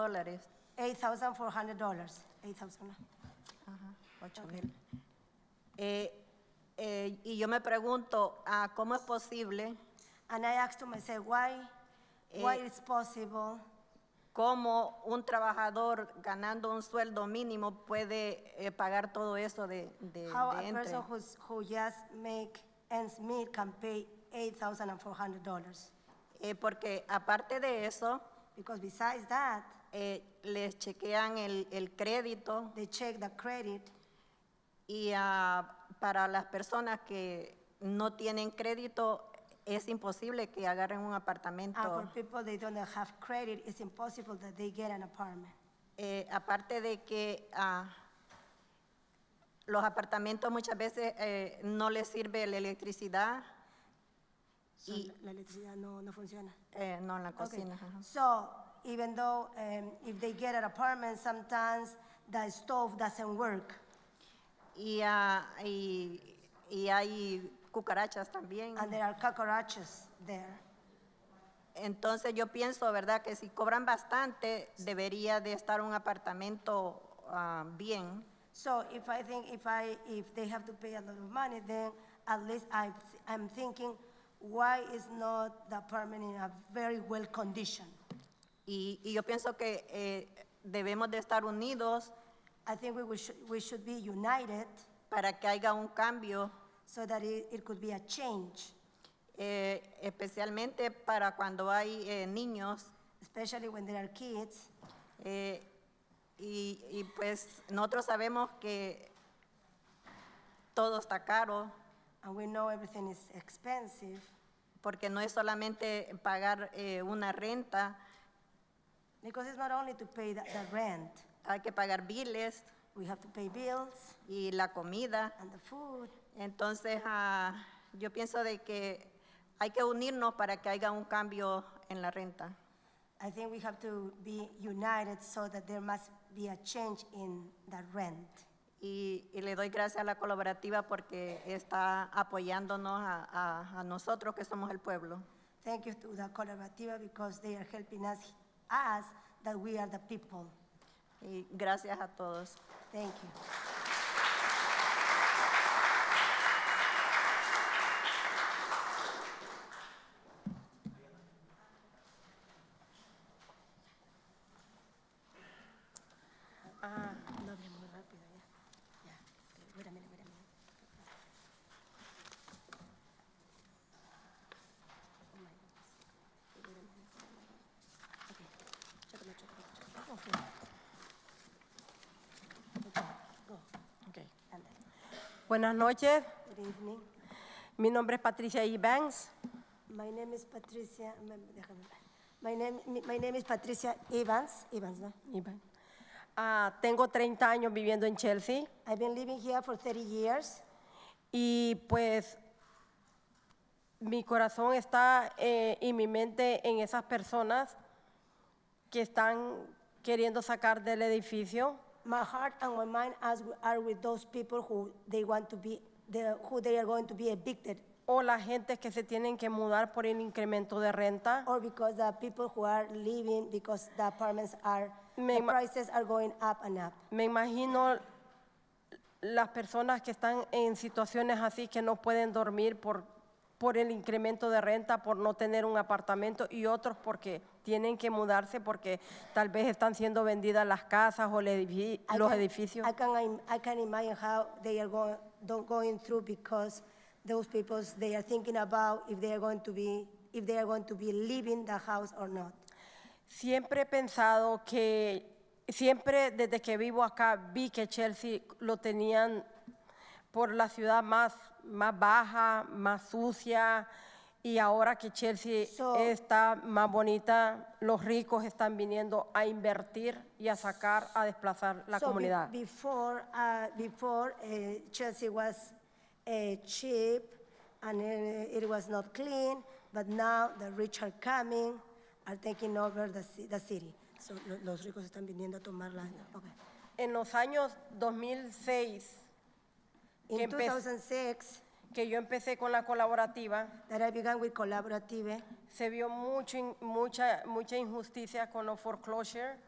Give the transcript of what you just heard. dólares. $8,400, $8,000. Ocho mil. Eh, eh, y yo me pregunto, ah, ¿cómo es posible? And I asked to myself, why, why Eh, it's possible ¿Cómo un trabajador ganando un sueldo mínimo puede eh, pagar todo eso de, de, how eh, de a entre? person who's, who just make ends meet can pay $8,400? Eh, porque aparte de eso, Because besides that, eh, les chequean el, el crédito they check the credit, y ah, para las personas que no tienen crédito es imposible que agarren un and for apartamento. people they don't have credit, it's impossible that they get an apartment. Eh, aparte de que ah, los apartamentos muchas veces eh, no les sirve la electricidad, So Y- la electricidad no, no funciona. eh, no en la Okay. cocina. ajá. So even though um, if they get an apartment, sometimes the stove doesn't work. Y, ah, y- y hay cucarachas también. and there are cockroaches there. Entonces yo pienso, ¿verdad? Que si cobran bastante, debería de estar un apartamento ah, bien. So if I think, if I, if they have to pay a lot of money, then at least I, I'm thinking, why is not the apartment in a very well condition? Y, y yo pienso que eh, debemos de estar unidos I think we will should, we should be united para que haya un cambio, so that it, it could be a change, eh, especialmente para cuando hay eh, niños. especially when there are kids. eh, y, y, pues nosotros sabemos que todo está caro, And we know everything is expensive porque no es solamente pagar eh, una renta, because it's not only to pay the, the rent. hay que pagar biles We have to pay bills y la comida. and the food. Entonces, ah, yo pienso de que hay que unirnos para que haya un cambio en la renta. I think we have to be united so that there must be a change in the rent. Y, y le doy gracias a la colaborativa porque está apoyándonos a, a- a nosotros que somos el pueblo. Thank you to the collaborativa because they are helping us, us that we are the people. Y gracias a todos. Thank you. Ah, no hable muy rápido ya. Ya. Mira, mira, mira, mira. Oh my goodness. Mira, mira, mira, mira. Okay. Chócalo, chócalo, chócalo. Okay. Okay. Ándale. Buenas noches, Good evening. mi nombre es Patricia E. Evans. My name is Patricia. me- déjame ver. My name, mi- my name is Patricia Evans. Evans, ¿no? Evans. E. Ah, tengo 30 años viviendo en Chelsea I've been living here for 30 years, y pues mi corazón está eh, y mi mente en esas personas que están queriendo sacar del edificio my heart and my mind as we are with those people who they want to be, the, who they are going to be evicted, o las gentes que se tienen que mudar por el incremento de renta. or because the people who are leaving because the apartments are, the Me ima- prices are going up and up. Me imagino las personas que están en situaciones así que no pueden dormir por, por el incremento de renta, por no tener un apartamento y otros porque tienen que mudarse porque tal vez están siendo vendidas las casas o el edifi- I los can- edificios. I can, im- I can imagine how they are going, don't going through because those people, they are thinking about if they are going to be, if they are going to be leaving the house or not. Siempre he pensado que, siempre desde que vivo acá vi que Chelsea lo tenían por la ciudad más, más baja, más sucia, y ahora que Chelsea So- está más bonita, los ricos están viniendo a invertir y a sacar, a desplazar la So be- comunidad. Before, uh, before uh, Chelsea was uh, cheap and uh, it was not clean, but now the rich are coming, are taking over the, ci- the city. So lo- los ricos están viniendo a tomar la, okay. en los años 2006, Que In empe- 2006, que yo empecé con la colaborativa, that I began with Collaborative, se vio mucho in- mucha, mucha injusticia con los foreclosure.